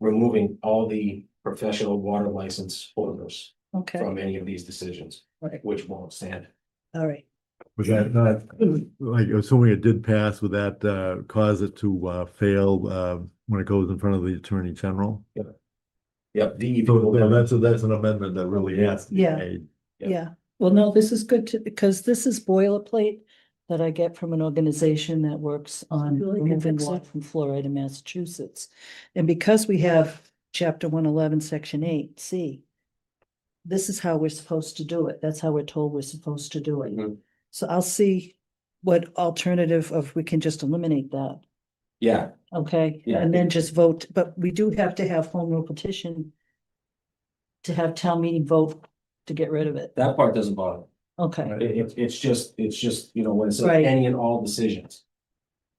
removing all the professional water license holders Okay, from any of these decisions, Right. which won't stand. all right. Was that not, like, assuming it did pass, would that uh cause it to uh fail uh when it goes in front of the Attorney General? Yep, DEP So will so come, that's, that's an amendment that really has to be Yeah. made. Yeah. Yeah, well, no, this is good to, because this is boilerplate that I get from an organization that works on Julie can removing fix water it. from fluoride in Massachusetts. And because we have chapter one eleven, section eight, C, this is how we're supposed to do it. That's how we're told we're supposed to do it. Mhm. So I'll see what alternative of, we can just eliminate that, yeah, okay? Yeah. And then just vote, but we do have to have home rule petition to have town meeting vote to get rid of it. that part doesn't bother. Okay, It, it's- it's just, it's just, you know, when it says Right. any and all decisions.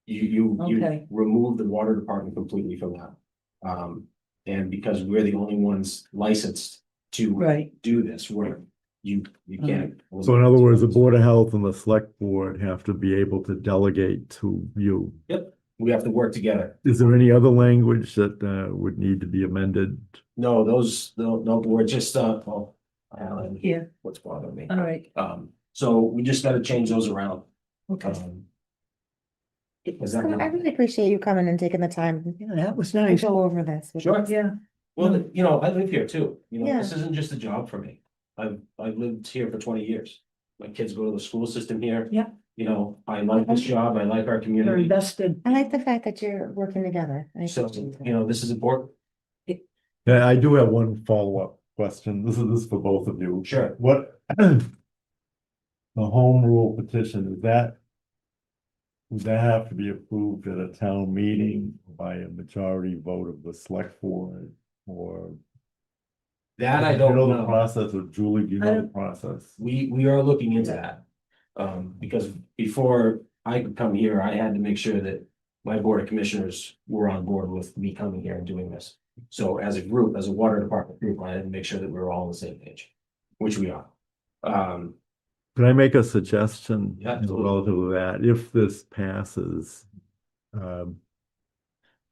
You, you, you Okay. remove the water department completely from that. Um, and because we're the only ones licensed to right, Uh-huh. do this, we're, you, you can't. So in other words, the Board of Health and the Select Board have to be able to delegate to you. We have to work together. Is there any other language that uh would need to be amended? No, those, no, no, we're just, uh, well, Alan, Yeah. what's bothering me? all right, Um, so we just gotta change those around. okay. Um, Is I that not- really appreciate you coming and taking the time Yeah, that was to nice. go over this. with Sure. us. Yeah, Well, you know, I live here too, you know, this isn't just a job for me. I've, I've lived here for twenty years. My kids go to the school system here. Yeah. You know, I like this job, I like our you're community, invested. I like the fact that you're working together. I so, appreciate that. you know, this is important, Yeah, I do have one follow-up question. This is, this is for both of you. sure. What? The home rule petition, is that? Would that have to be approved at a town meeting by a majority vote of the select board or? That I You don't The know, process of Julie, do you I know the don't- process? we, we are looking into that. Um, because before I could come here, I had to make sure that my board of commissioners were on board with me coming here and doing this. So as a group, as a water department group, I had to make sure that we were all on the same page, which we are. Um, Can I make a suggestion? Yeah, you know, absolutely. Relative to that, if this passes. um,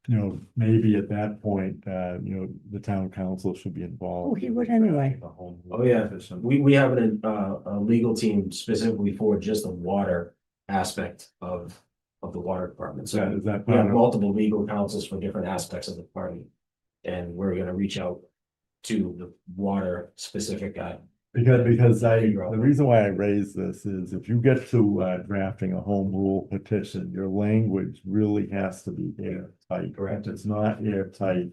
You know, maybe at that point, uh, you know, the town council should be involved. Oh, he in would drafting anyway. the home Oh, rule yeah. petition. We, we have an, uh, a legal team specifically for just the water aspect of, of the water department. Is that, So is that? we have part of- multiple legal counsels for different aspects of the party. And we're gonna reach out to the water specific guy. Because, because I, Figure out the what- reason why I raise this is if you get to uh drafting a home rule petition, your language really has to be airtight. Correct. If it's not airtight,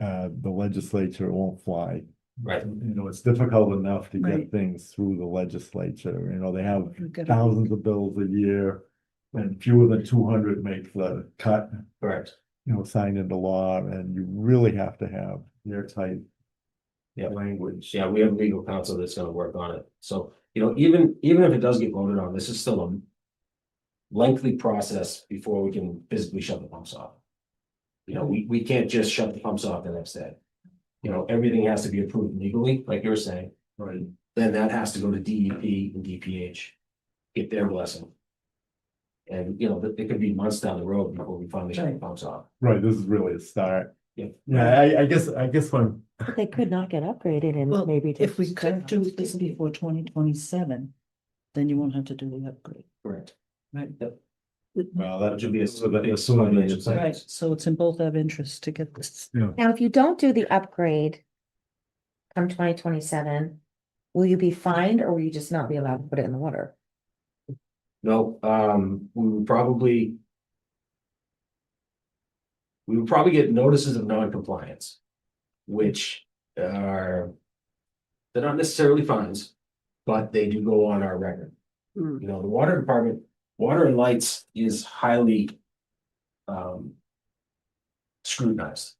uh, the legislature won't fly. Right. You know, it's difficult enough to get Right. things through the legislature, you know, they have We've got it. thousands of bills a year. And fewer than two hundred make the cut, Correct. you know, signed into law, and you really have to have airtight Yeah. language. Yeah, we have legal counsel that's gonna work on it. So, you know, even, even if it does get voted on, this is still a lengthy process before we can physically shut the pumps off. You know, we, we can't just shut the pumps off the next day. You know, everything has to be approved legally, like you were saying, Right. then that has to go to DEP and DPH. Get their blessing. And, you know, it, it could be months down the road before we finally shut the Right. pumps off. Right, this is really a start. Yeah. Yeah, I, I guess, I guess when, But They could not get upgraded Well, and maybe. If we just- could do this before twenty twenty-seven, then you won't have to do the upgrade. Correct. Right. Yep. well, That should that should be a- be. Right, so it's in both our interests to get this. Now, if you don't do the upgrade come twenty twenty-seven, will you be fined or will you just not be allowed to put it in the water? No, um, we would probably. We would probably get notices of non-compliance. Which are. They're not necessarily fines, but they do go on our record. Hmm. You know, the water department, water and lights is highly. Um. Scrutinized.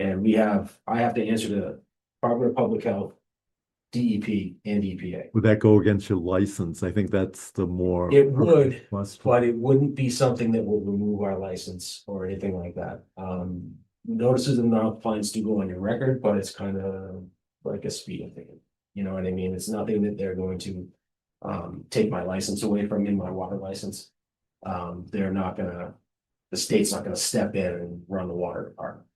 And we have, I have to answer to Department of Public Health. DEP and E EPA. Would that go against your license? I think that's the more. It would, Question. But it wouldn't be something that will remove our license or anything like that. Um, notices of non-compliance do go on your record, but it's kind of like a speeding ticket. You know what I mean? It's nothing that they're going to um, take my license away from me, my water license. Um, they're not gonna the state's not gonna step in and run the water department.